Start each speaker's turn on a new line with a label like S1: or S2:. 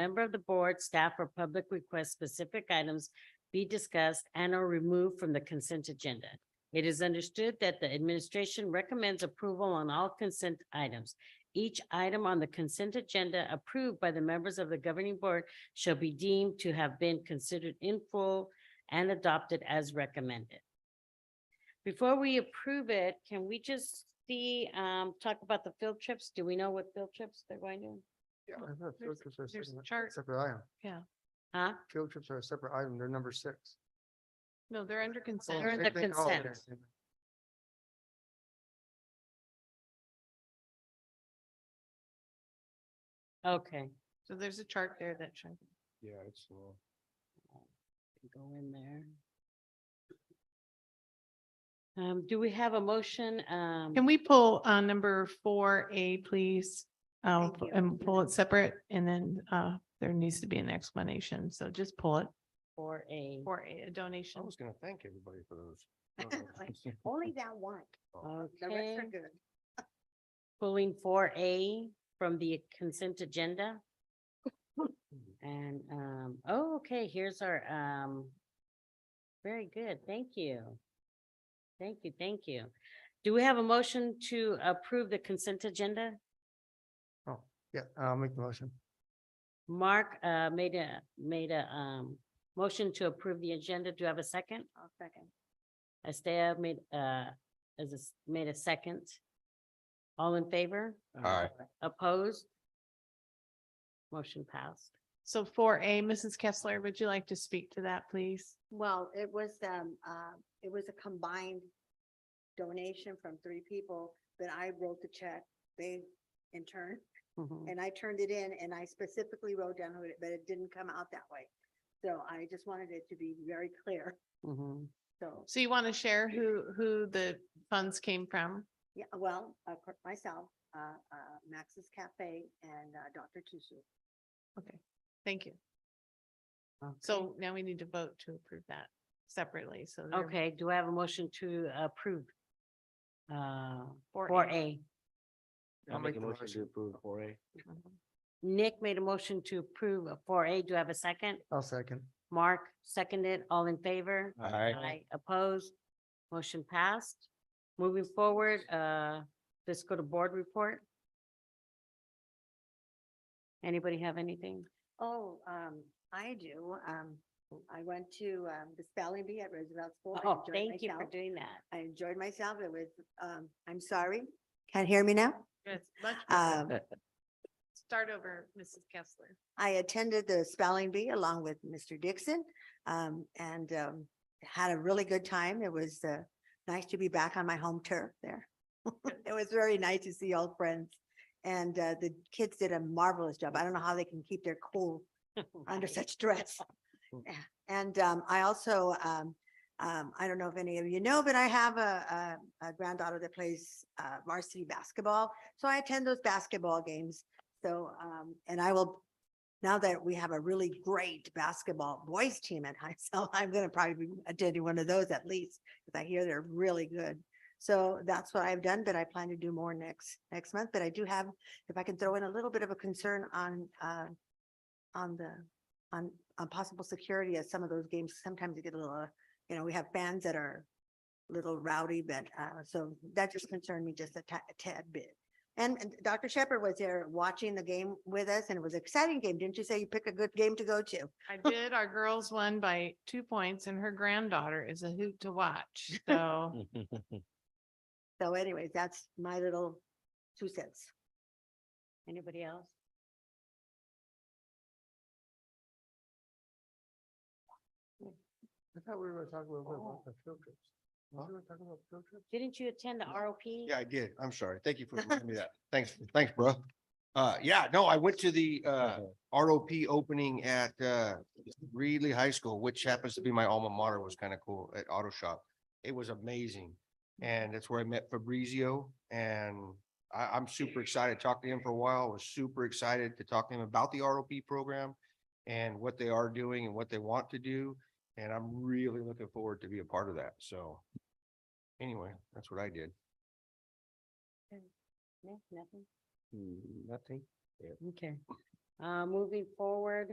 S1: member of the board, staff, or public request specific items be discussed and are removed from the consent agenda. It is understood that the administration recommends approval on all consent items. Each item on the consent agenda approved by the members of the governing board shall be deemed to have been considered in full and adopted as recommended. Before we approve it, can we just see, um, talk about the field trips? Do we know what field trips they're going to?
S2: Yeah, I thought field
S3: there's-
S2: trips are a
S3: there's a
S2: separate-
S3: chart.
S2: Separate item.
S1: Huh?
S2: Field trips are a separate item. They're number six.
S3: No, they're under consent.
S1: They're in
S2: Same
S1: the
S2: thing. Oh, okay.
S1: consent. Okay.
S3: So there's a chart there that shows.
S2: Yeah, it's uh, slow.
S1: Go in there. Um, do we have a motion? Um,
S3: Can we pull uh number four A, please? Um,
S1: Thank you.
S3: and pull it separate and then uh there needs to be an explanation. So just pull it
S1: for a,
S3: for a a donation.
S2: I was gonna thank everybody for those.
S4: Only that one. The
S1: okay,
S4: rest are good.
S1: pulling for a from the consent agenda. And, um, oh, okay, here's our, um, very good, thank you. Thank you, thank you. Do we have a motion to approve the consent agenda?
S2: Yeah, I'll make the motion.
S1: Mark, uh, made a, made a, um, motion to approve the agenda. Do you have a second?
S4: I'll second.
S1: Estea made, uh, as is, made a second. All in favor?
S5: Aye.
S1: Opposed? Motion passed.
S3: So four A, Mrs. Kessler, would you like to speak to that, please?
S4: Well, it was, um, uh, it was a combined donation from three people, but I wrote the check, they in turn,
S1: Mhm.
S4: and I turned it in and I specifically wrote down who it, but it didn't come out that way. So I just wanted it to be very clear,
S1: Mhm.
S4: so,
S3: So you want to share who who the funds came from?
S4: yeah, well, of course, myself, uh, uh, Max's Cafe and, uh, Dr. Tusu.
S3: Okay, thank you.
S1: Okay.
S3: So now we need to vote to approve that separately. So. they're
S1: Okay, do I have a motion to approve? Uh,
S3: 4A.
S1: for A.
S2: I'll make the motion.
S5: approve four A.
S3: Mhm.
S1: Nick made a motion to approve for A. Do I have a second?
S2: I'll second.
S1: Mark seconded. All in favor?
S5: Aye.
S1: Aye, opposed, motion passed. Moving forward, uh, let's go to board report. Anybody have anything?
S4: Oh, um, I do, um, I went to, um, the spelling bee at Roosevelt School. I
S1: Oh,
S4: enjoyed
S1: thank you for
S4: myself.
S1: doing that.
S4: I enjoyed myself. It was, um, I'm sorry. Can't hear me now?
S3: Yes, much
S1: Uh,
S3: better.
S4: Um,
S3: Start over, Mrs. Kessler.
S4: I attended the spelling bee along with Mr. Dixon, um, and, um, had a really good time. It was, uh, nice to be back on my home turf there. It was very nice to see old friends and, uh, the kids did a marvelous job. I don't know how they can keep their cool under such stress.
S2: Mm.
S4: Yeah. And um, I also, um, um, I don't know if any of you know, but I have a, a- a granddaughter that plays uh, varsity basketball. So I attend those basketball games. So, um, and I will, now that we have a really great basketball boys team at high school, I'm going to probably be attending one of those at least, because I hear they're really good. So that's what I've done, but I plan to do more next, next month. But I do have, if I can throw in a little bit of a concern on, uh, on the, on, on possible security as some of those games, sometimes you get a little, uh, you know, we have fans that are a little rowdy, but, uh, so that just concerned me just a ta- a tad bit. And, and Dr. Shepherd was there watching the game with us and it was an exciting game. Didn't you say you pick a good game to go to?
S3: I did. Our girls won by two points and her granddaughter is a hoot to watch. So
S4: So anyways, that's my little two cents.
S1: Anybody else?
S2: I thought we were gonna talk a little bit
S1: Oh.
S2: about the field trips. Were
S5: Huh?
S2: we gonna talk about field trips?
S1: Didn't you attend the ROP?
S5: Yeah, I did. I'm sorry. Thank you for reminding me of that. Thanks, thanks, bro. Uh, yeah, no, I went to the uh ROP opening at uh Reedley High School, which happens to be my alma mater, was kind of cool at Auto Shop. It was amazing. And that's where I met Fabrizio and I, I'm super excited. Talked to him for a while, was super excited to talk to him about the ROP program and what they are doing and what they want to do. And I'm really looking forward to be a part of that. So anyway, that's what I did.
S1: No, Nothing?
S5: 嗯 Nothing.
S1: Okay. Uh, moving forward,